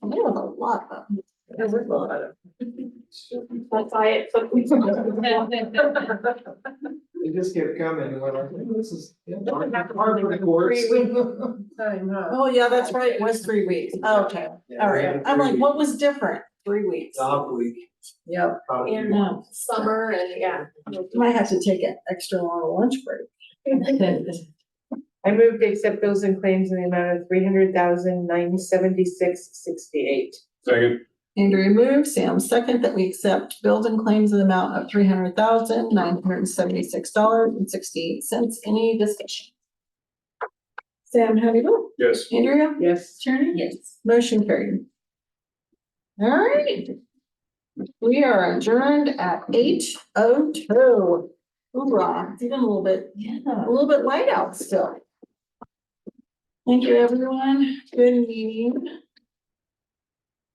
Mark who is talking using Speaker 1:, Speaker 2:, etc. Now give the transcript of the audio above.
Speaker 1: lot of.
Speaker 2: There's a lot of.
Speaker 3: That's why it took me so long.
Speaker 4: They just kept coming and went like, "Oh, this is, yeah,
Speaker 3: Doesn't have to
Speaker 4: hard for the courts.
Speaker 3: Three
Speaker 2: Time, huh?
Speaker 1: Oh, yeah, that's right, it was three weeks, Oh, okay,
Speaker 4: Yeah,
Speaker 1: all
Speaker 4: we
Speaker 1: right,
Speaker 4: had
Speaker 1: I'm like,
Speaker 4: three
Speaker 1: what was different, three weeks?
Speaker 4: Dog week. uh,
Speaker 2: Yep,
Speaker 4: dog week.
Speaker 3: And um, summer and yeah.
Speaker 1: Might have to take an extra long lunch break.
Speaker 5: I move to accept bills and claims in the amount of three hundred thousand nine seventy-six sixty-eight.
Speaker 6: Second,
Speaker 1: Andrea moves, Sam second, that we accept bills and claims in the amount of three hundred thousand, nine hundred and seventy-six dollars and sixty-eight cents. Any discussion? Sam, how do you vote?
Speaker 6: yes.
Speaker 1: Andrea?
Speaker 2: yes.
Speaker 1: Tierney? Yes. Motion carried. All right. We are adjourned at eight oh two. Hoorah, it's even a little bit, a little bit light out still. Thank you, everyone. Good meeting.